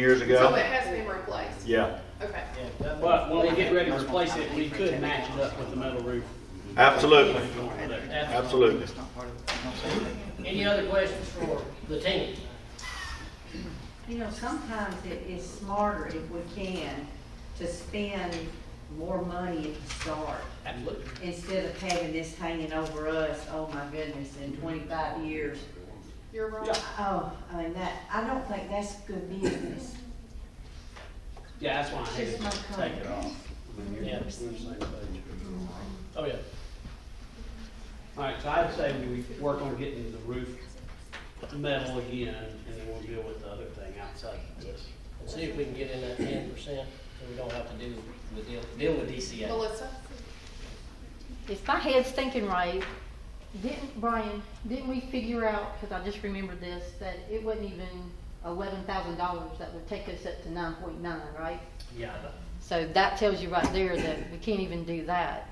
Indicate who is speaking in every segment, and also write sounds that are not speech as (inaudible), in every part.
Speaker 1: years
Speaker 2: So
Speaker 1: ago.
Speaker 2: it has been replaced?
Speaker 1: Yeah,
Speaker 2: Okay.
Speaker 3: But when we get ready to replace it, we could match it up with the metal roof.
Speaker 1: absolutely,
Speaker 3: That's-
Speaker 1: absolutely.
Speaker 4: Any other questions for the team?
Speaker 5: You know, sometimes it is smarter if we can to spend more money at the start
Speaker 4: Absolutely.
Speaker 5: instead of having this hanging over us, oh my goodness, in twenty-five years.
Speaker 2: You're wrong.
Speaker 3: Yeah.
Speaker 5: Oh, I mean, that, I don't think that's good business.
Speaker 3: Yeah, that's why I had
Speaker 5: Just my
Speaker 3: to take it off. Yeah, we're the same page. Oh, yeah. All right, so I'd say we work on getting the roof metal again, and then we'll deal with the other thing outside of this.
Speaker 4: And See if we can get in that ten percent, so we don't have to do, with deal, deal with DCA.
Speaker 2: Melissa?
Speaker 6: If my head's thinking right, didn't, Brian, didn't we figure out, because I just remembered this, that it wasn't even eleven thousand dollars that would take us up to nine point nine, right?
Speaker 3: Yeah, but-
Speaker 6: So that tells you right there that we can't even do that.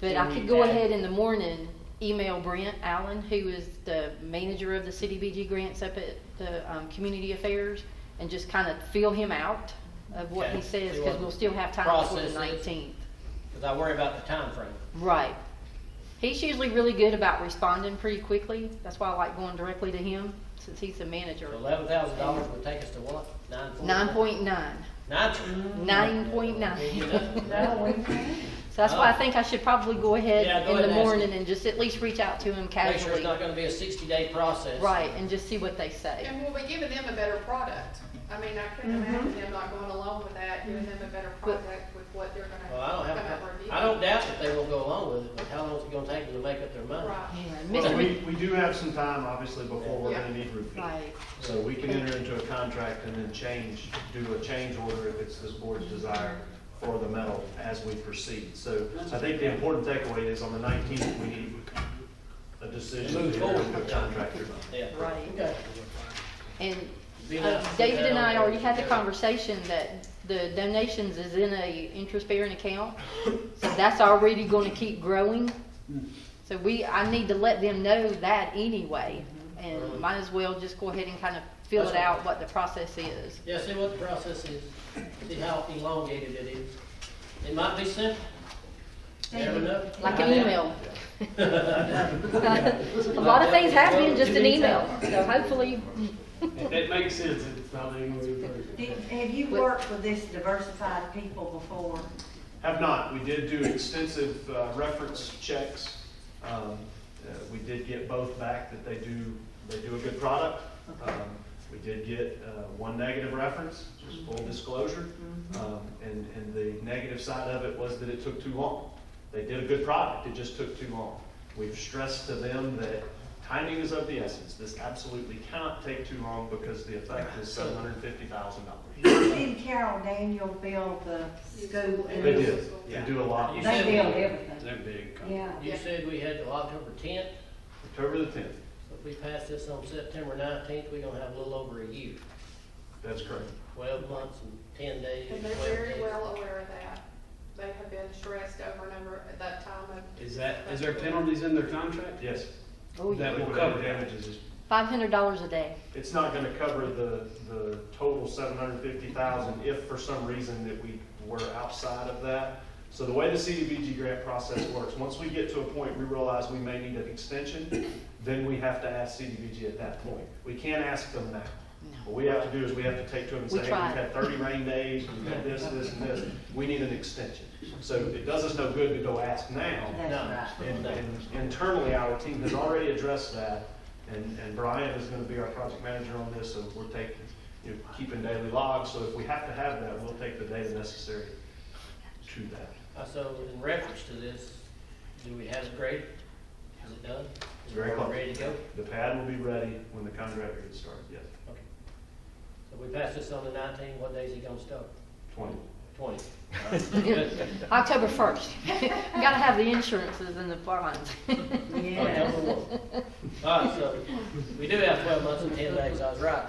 Speaker 6: But
Speaker 4: Can
Speaker 6: I
Speaker 4: we
Speaker 6: could go
Speaker 4: add-
Speaker 6: ahead in the morning, email Brent Allen, who is the manager of the CDBG grants up at the, um, Community Affairs, and just kind of feel him out of what
Speaker 4: Okay.
Speaker 6: he says,
Speaker 4: See
Speaker 6: because
Speaker 4: what
Speaker 6: we'll still have time before the
Speaker 4: process is.
Speaker 6: nineteenth.
Speaker 4: Cause I worry about the time frame.
Speaker 6: Right. He's usually really good about responding pretty quickly. That's why I like going directly to him, since he's the manager.
Speaker 4: Eleven thousand dollars would take us to what? Nine forty?
Speaker 6: Nine point nine.
Speaker 4: Nine.
Speaker 6: Nine point (laughs) nine.
Speaker 4: You know?
Speaker 5: No, we can't.
Speaker 6: So that's why I think I should probably go
Speaker 3: Oh. Yeah,
Speaker 6: ahead
Speaker 3: go ahead
Speaker 6: in the
Speaker 3: and ask
Speaker 6: morning
Speaker 3: him.
Speaker 6: and just at least reach out to him
Speaker 4: Make sure it's
Speaker 6: casually.
Speaker 4: not gonna be a sixty-day process.
Speaker 6: Right, and just see what they say.
Speaker 2: And will we giving them a better product? I mean, I couldn't imagine them not going along with that, giving them a better
Speaker 6: But-
Speaker 2: product with what they're gonna
Speaker 4: Well, I don't
Speaker 2: come up
Speaker 4: have,
Speaker 2: with.
Speaker 4: I don't doubt that they will go along with it, but how long is it gonna take them to make up their mind?
Speaker 6: Yeah,
Speaker 2: Right.
Speaker 7: Well,
Speaker 6: Mr.
Speaker 7: we,
Speaker 6: Mc-
Speaker 7: we do have some time, obviously, before we're gonna need roofing.
Speaker 6: Right,
Speaker 7: So we can enter into a contract and then change, do a change order if it's this board's desire for the metal as we proceed. So I think the important takeaway is on the nineteenth, we need a decision.
Speaker 4: Move
Speaker 7: to enter
Speaker 4: forward.
Speaker 7: into a Contract.
Speaker 4: Yeah.
Speaker 6: right.
Speaker 4: Okay.
Speaker 6: And
Speaker 4: Be
Speaker 6: Uh,
Speaker 4: nice to
Speaker 6: David
Speaker 4: have
Speaker 6: and I
Speaker 4: that on
Speaker 6: already had the
Speaker 4: there.
Speaker 6: conversation that the donations is in a interest-bearing account, so that's already gonna keep growing. So we, I need to let them know that anyway, and might as well just go ahead and kind of fill it
Speaker 4: That's
Speaker 6: out what the process is.
Speaker 4: Yeah, see what the process is, see how elongated it is. It might be simple. Never know.
Speaker 6: Like an email. A lot
Speaker 4: Like
Speaker 6: of
Speaker 4: that.
Speaker 6: things happen in just an
Speaker 4: Well, you
Speaker 6: email,
Speaker 4: can
Speaker 6: so hopefully,
Speaker 3: If that makes sense, it's not even going
Speaker 5: Did- Have you worked with this diversified people before?
Speaker 7: Have not, we did do extensive uh, reference checks. Um, uh, We did get both back that they do, they do a good product. Um, We did get uh, one negative reference, just full disclosure. Um, And, and the negative side of it was that it took too long. They did a good product, it just took too long. We've stressed to them that timing is of the essence. This absolutely cannot take too long because the effect is seven hundred and fifty thousand dollars.
Speaker 5: Didn't Carol Daniel build the school?
Speaker 2: They
Speaker 7: They did, they do a lot.
Speaker 4: You
Speaker 5: They
Speaker 4: said
Speaker 5: build
Speaker 4: we-
Speaker 5: everything,
Speaker 3: They're big.
Speaker 5: yeah.
Speaker 4: (laughs) You said we had till October tenth,
Speaker 7: October the tenth,
Speaker 4: if we pass this on September nineteenth, we're gonna have a little over a year.
Speaker 7: that's correct.
Speaker 4: Twelve months and ten days.
Speaker 2: And they're
Speaker 4: 12
Speaker 2: very
Speaker 4: days.
Speaker 2: well aware of that. They have been stressed over and over at that time of.
Speaker 3: Is that, is there penalties in their contract?
Speaker 7: Yes.
Speaker 6: oh, yeah.
Speaker 3: That will
Speaker 7: Liquidated
Speaker 3: cover that.
Speaker 7: damages is-
Speaker 6: five hundred dollars a day.
Speaker 7: It's not gonna cover the, the total seven hundred fifty thousand if for some reason that we were outside of that. So the way the CDBG grant process works, once we get to a point we realize we may need an extension, then we have to ask CDBG at that point. We can't ask them now. What we have to do is we have to take to them and say,
Speaker 6: We
Speaker 7: hey, we've
Speaker 6: tried.
Speaker 7: had thirty rain days, we've had this, this, and this, we need an extension. So it does us no good to go ask now,
Speaker 5: That's right.
Speaker 7: and, and internally, our team has already addressed that, and, and Brian is gonna be our project manager on this, so we're taking, you know, keeping daily logs, so if we have to have that, we'll take the data necessary to that.
Speaker 4: Uh, So in reference to this, do we have it graded? Is it done? Is
Speaker 7: Very
Speaker 4: it
Speaker 7: close.
Speaker 4: Ready to go?
Speaker 7: The pad will be ready when the contractor gets started, yes,
Speaker 4: Okay. So we pass this on the nineteenth, what day is it gonna start?
Speaker 7: twenty.
Speaker 4: Twenty.
Speaker 6: October first. (laughs) Gotta have the insurances and the bonds. Oh, (laughs)
Speaker 5: Yeah.
Speaker 4: October one. All right, so we do have twelve months and ten days, I was right.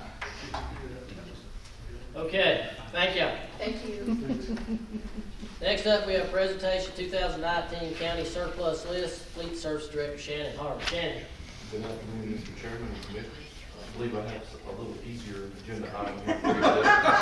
Speaker 4: Okay, thank you.
Speaker 2: Thank you.
Speaker 4: Next up, we have presentation two thousand nineteen county surplus list, fleet service director Shannon Harvey. Shannon,
Speaker 8: Good afternoon, Mr. Chairman and Commissioners. I believe I have a little easier agenda item here for you today.